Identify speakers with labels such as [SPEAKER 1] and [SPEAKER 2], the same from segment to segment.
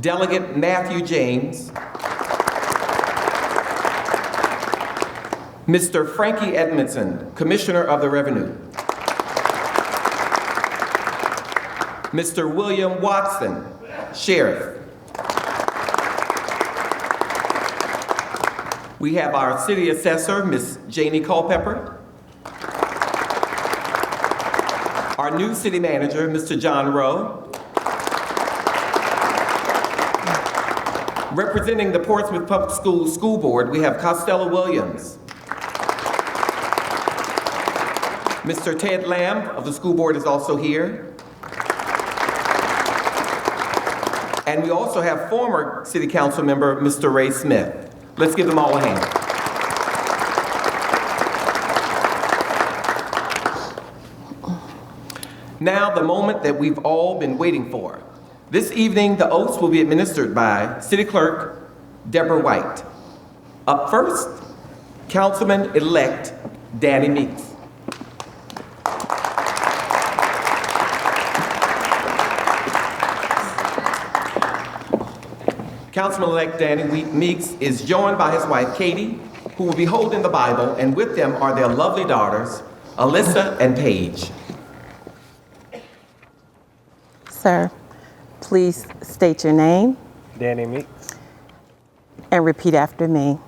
[SPEAKER 1] Delegate Matthew James, Mr. Frankie Edmondson, Commissioner of the Revenue, Mr. William Watson, Sheriff. We have our City Assessor, Ms. Janie Culpepper, our new City Manager, Mr. John Rowe, Representing the Portsmouth Public Schools School Board, we have Costello Williams. Mr. Ted Lamb of the school board is also here. And we also have former city council member, Mr. Ray Smith. Let's give them all a hand. Now, the moment that we've all been waiting for. This evening, the oaths will be administered by City Clerk Deborah White. Up first, Councilman-elect Danny Meeks. Councilman-elect Danny We- Meeks is joined by his wife Katie, who will be holding the Bible, and with them are their lovely daughters, Alyssa and Paige.
[SPEAKER 2] Sir, please state your name
[SPEAKER 3] Danny Meeks,
[SPEAKER 2] and repeat after me.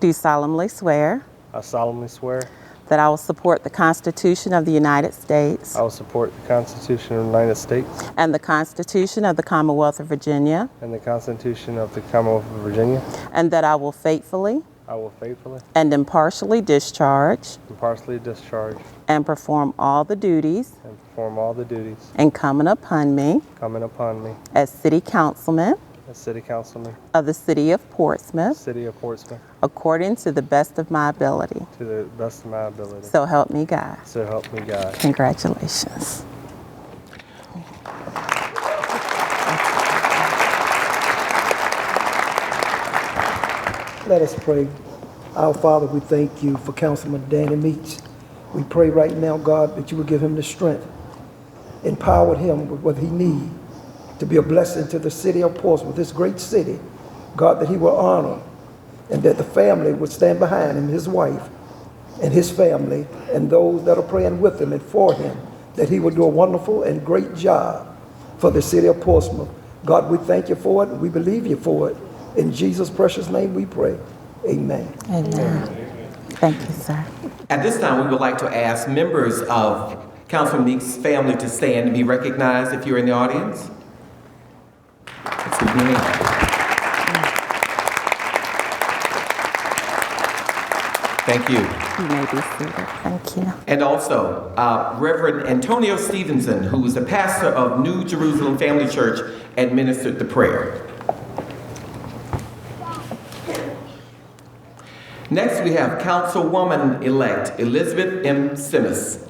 [SPEAKER 2] Do solemnly swear
[SPEAKER 3] I solemnly swear
[SPEAKER 2] that I will support the Constitution of the United States
[SPEAKER 3] I will support the Constitution of the United States
[SPEAKER 2] and the Constitution of the Commonwealth of Virginia,
[SPEAKER 3] and the Constitution of the Commonwealth of Virginia.
[SPEAKER 2] and that I will faithfully
[SPEAKER 3] I will faithfully,
[SPEAKER 2] and impartially discharge
[SPEAKER 3] impartially discharge,
[SPEAKER 2] and perform all the duties
[SPEAKER 3] and perform all the duties
[SPEAKER 2] incumbent upon me
[SPEAKER 3] coming upon me
[SPEAKER 2] as City Councilman
[SPEAKER 3] as City Councilman,
[SPEAKER 2] of the City of Portsmouth
[SPEAKER 3] City of Portsmouth,
[SPEAKER 2] according to the best of my ability.
[SPEAKER 3] to the best of my ability.
[SPEAKER 2] So help me God.
[SPEAKER 3] So help me God.
[SPEAKER 2] Congratulations.
[SPEAKER 4] Let us pray. Our Father, we thank you for Councilman Danny Meets. We pray right now, God, that you would give him the strength, empower him with what he needs to be a blessing to the city of Portsmouth, this great city. God, that he will honor and that the family would stand behind him, his wife and his family, and those that are praying with him and for him, that he will do a wonderful and great job for the city of Portsmouth. God, we thank you for it. and We believe you for it. In Jesus' precious name we pray. Amen.
[SPEAKER 2] Amen. Thank you, sir.
[SPEAKER 1] At this time, we would like to ask members of Councilman Meeks' family to stand and be recognized if you're in the audience. Let's give them a hand. Thank you.
[SPEAKER 2] You may be seated. Thank you.
[SPEAKER 1] And also, uh, Reverend Antonio Stevenson, who is the pastor of New Jerusalem Family Church, administered the prayer. Next, we have Councilwoman-elect Elizabeth M. Simmons.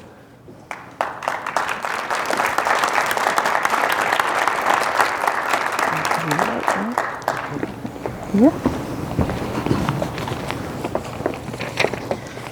[SPEAKER 2] Yeah.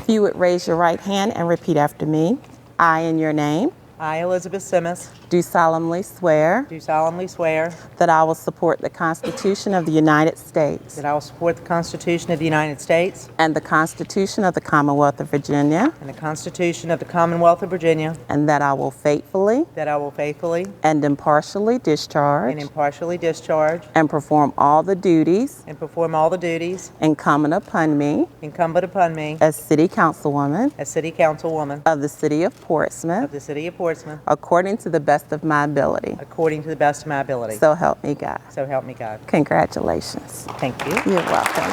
[SPEAKER 2] If you would raise your right hand and repeat after me. I, in your name,
[SPEAKER 5] I, Elizabeth Simmons,
[SPEAKER 2] do solemnly swear
[SPEAKER 5] do solemnly swear
[SPEAKER 2] that I will support the Constitution of the United States
[SPEAKER 5] that I will support the Constitution of the United States
[SPEAKER 2] and the Constitution of the Commonwealth of Virginia,
[SPEAKER 5] and the Constitution of the Commonwealth of Virginia,
[SPEAKER 2] and that I will faithfully
[SPEAKER 5] that I will faithfully
[SPEAKER 2] and impartially discharge
[SPEAKER 5] and impartially discharge
[SPEAKER 2] and perform all the duties
[SPEAKER 5] and perform all the duties
[SPEAKER 2] incumbent upon me
[SPEAKER 5] incumbent upon me
[SPEAKER 2] as City Councilwoman
[SPEAKER 5] as City Councilwoman
[SPEAKER 2] of the City of
[SPEAKER 5] of
[SPEAKER 2] Portsmouth
[SPEAKER 5] the City of Portsmouth
[SPEAKER 2] according to the best of my ability.
[SPEAKER 5] according to the best of my ability.
[SPEAKER 2] So help me God.
[SPEAKER 5] So help me God.
[SPEAKER 2] Congratulations.
[SPEAKER 5] Thank you.
[SPEAKER 2] You're welcome.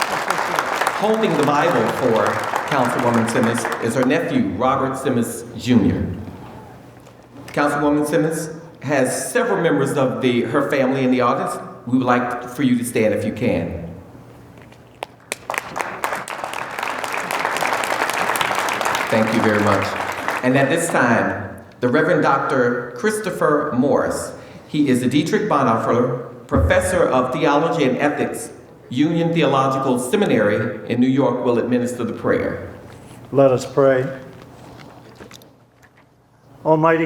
[SPEAKER 1] Holding the Bible for Councilwoman Simmons is her nephew, Robert Simmons Jr. Councilwoman Simmons has several members of the, her family in the audience. We would like for you to stand if you can. Thank you very much. And at this time, the Reverend Dr. Christopher Morris. He is a Dietrich Bonhoeffer Professor of Theology and Ethics, Union Theological Seminary in New York, will administer the prayer.
[SPEAKER 6] Let us pray. Almighty